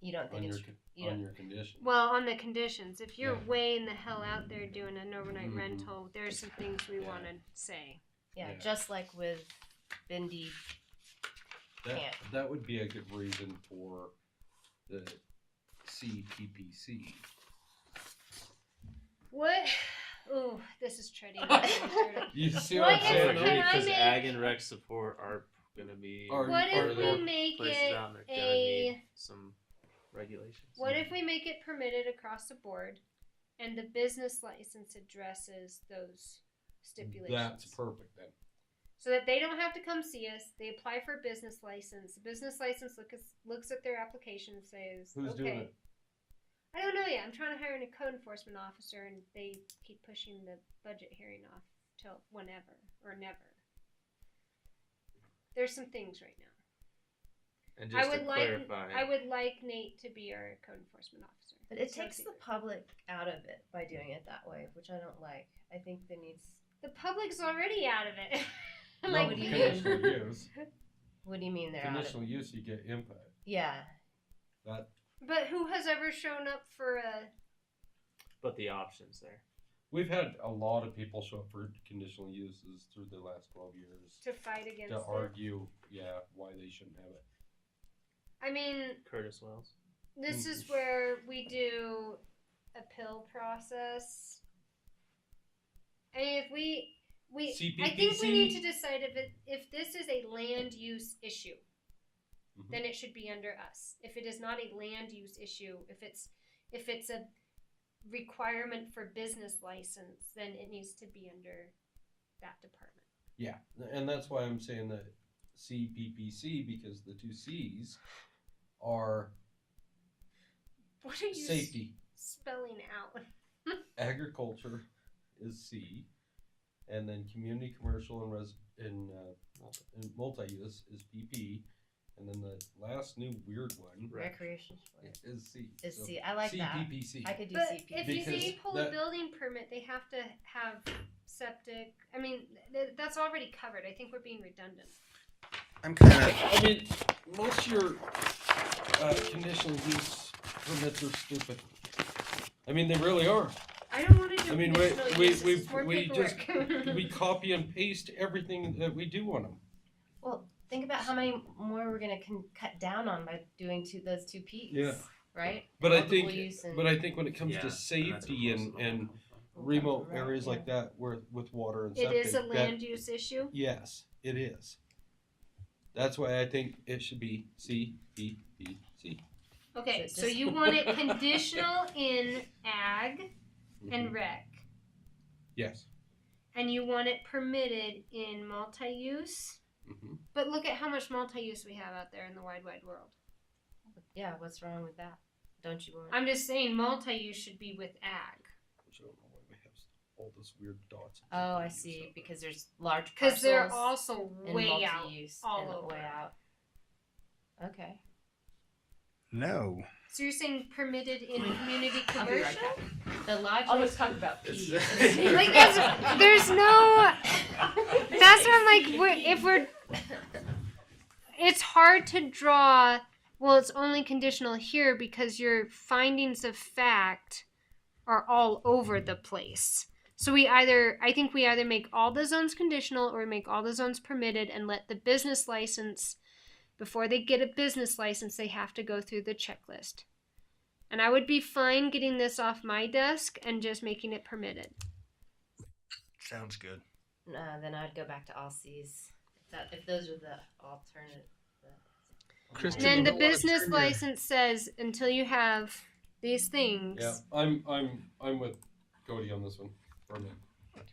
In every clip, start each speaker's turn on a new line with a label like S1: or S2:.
S1: You don't
S2: on
S1: think
S2: your,
S1: it's
S2: con-
S1: you
S2: on
S1: don't-
S2: your condition.
S3: Well, on the conditions, if you're
S2: Yeah.
S3: way in the hell out there doing an overnight
S2: Mhm.
S3: rental, there's some things we
S2: Yeah.
S3: want to say.
S1: yeah,
S2: yeah.
S1: just like with Bindi.
S2: That,
S1: can't.
S2: that would be a good reason for the CPPC.
S3: What? Ooh, this is treading.
S2: You see
S3: Well, yes,
S2: what I'm saying?
S3: can I
S4: Because
S3: make-
S4: ag and rec support are gonna be
S2: Are-
S3: what
S2: are
S3: if
S2: there
S3: we make
S4: places
S3: it?
S4: out there gonna
S3: a-
S4: need some regulations.
S3: What if we make it permitted across the board, and the business license addresses those stipulations?
S2: That's perfect then.
S3: so that they don't have to come see us. They apply for a business license. The business license look looks at their application and says,
S2: Who's
S3: okay.
S2: doing it?
S3: I don't know yet. I'm trying to hire a code enforcement officer, and they keep pushing the budget hearing off till whenever or never. There's some things right now.
S4: And
S3: I
S4: just to
S3: would like-
S4: clarify,
S3: I would like Nate to be our code enforcement officer.
S1: But it
S3: It's no
S1: takes the
S3: secret.
S1: public out of it by doing it that way, which I don't like. I think there needs.
S3: the public's already out of it.
S1: No,
S3: like,
S1: what do you mean?
S2: Conditional use,
S1: What do you mean they're out of
S2: conditional
S1: it?
S2: use, you get input.
S1: Yeah,
S2: That,
S3: but who has ever shown up for uh, a?
S4: but the options there.
S2: we've had a lot of people show up for conditional uses through the last twelve years
S3: to fight against
S2: to
S3: it.
S2: argue, yeah, why they shouldn't have it.
S3: I mean,
S4: Curtis Wells.
S3: this
S2: Mm.
S3: is where we do a pill process. I mean, if we we I think we
S2: CPPC?
S3: need to decide if it, if this is a land use issue,
S2: Mhm.
S3: then it should be under us. If it is not a land use issue, if it's if it's a requirement for business license, then it needs to be under that department.
S2: Yeah, and that's why I'm saying that CPPC because the two C's are
S3: What are you s-
S2: safety.
S3: spelling out?
S2: Agriculture is C, and then community, commercial, and res and, uh, and multi-use is PP, and then the last new weird one
S4: Rec.
S1: recreation sport.
S2: is C.
S1: Is
S2: So,
S1: C. I like that.
S2: CPPC.
S1: I could do
S3: But
S1: CP.
S3: if you
S2: Because
S3: they pull a
S2: that-
S3: building permit, they have to have septic. I mean, th- that's already covered. I think we're being redundant.
S5: I'm kind of
S2: I mean, most of your uh, conditional use permits are stupid. I mean, they really are.
S3: I don't want to do
S2: I mean, we-
S3: conditional
S2: we-
S3: use.
S2: we-
S3: It's more
S2: we just-
S3: paperwork.
S2: We copy and paste everything that we do on them.
S1: Think about how many more we're gonna con- cut down on by doing two those two P's.
S2: Yeah.
S1: Right.
S2: But I
S1: Multiple
S2: think,
S1: use and-
S2: but I think when it comes
S4: Yeah,
S2: to
S4: and that's
S2: safety
S4: what most
S2: and,
S4: of them
S2: and
S4: come from.
S2: remote areas
S1: Yeah.
S2: like that, where with water and
S3: it
S2: septic,
S3: is a
S2: that-
S3: land use issue.
S2: yes, it is. That's why I think it should be C P P C.
S3: Okay,
S1: So
S3: so
S1: just-
S3: you want it conditional in ag
S2: Mm-hmm.
S3: and rec,
S2: yes.
S3: and you want it permitted in multi-use.
S2: hmm
S3: But look at how much multi-use we have out there in the wide, wide world.
S1: Yeah. What's wrong with that? Don't you want?
S3: I'm just saying multi-use should be with ag.
S2: Which I don't know why we have all those weird dots.
S1: oh, I see. Because there's large.
S3: Because they're
S1: parcels
S3: also
S1: and
S3: way out.
S1: multi-use
S3: all
S1: and way
S3: over.
S1: out. Okay.
S5: no.
S3: So you're saying permitted in community
S6: I'll be right
S3: commercial?
S6: back.
S1: The logic.
S6: I'll just talk about
S4: It's-
S6: peas.
S3: like there's, there's no. That's what I'm like. We're, if we're, it's hard to draw. Well, it's only conditional here because your findings of fact are all over the place. So we either, I think we either make all the zones conditional or we make all the zones permitted and let the business license. Before they get a business license, they have to go through the checklist. And I would be fine getting this off my desk and just making it permitted.
S5: Sounds good.
S1: Uh, then I'd go back to all C's. If, that, if those are the alternate.
S3: And then
S2: you
S3: the
S2: know what?
S3: business
S2: Turn your-
S3: license says until you have these things.
S2: Yeah, I'm I'm I'm with Cody on this one. for a minute.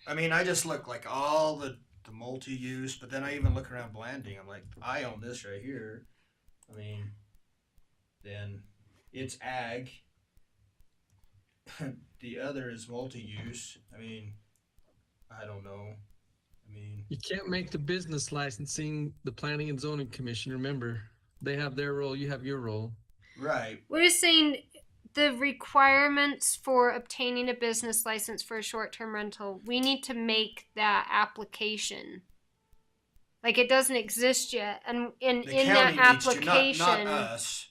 S5: I mean, I just look like all the the multi-use, but then I even look around Blanding. I'm like, I own this right here. I mean, then it's ag. the other is multi-use. I mean, I don't know. I mean,
S7: You can't make the business licensing the planning and zoning commission. Remember, they have their role, you have your role.
S5: right?
S3: We're just saying the requirements for obtaining a business license for a short term rental, we need to make that application. Like it doesn't exist yet. And, and
S5: The
S3: in
S5: county
S3: that
S5: needs to,
S3: application
S5: not, not us.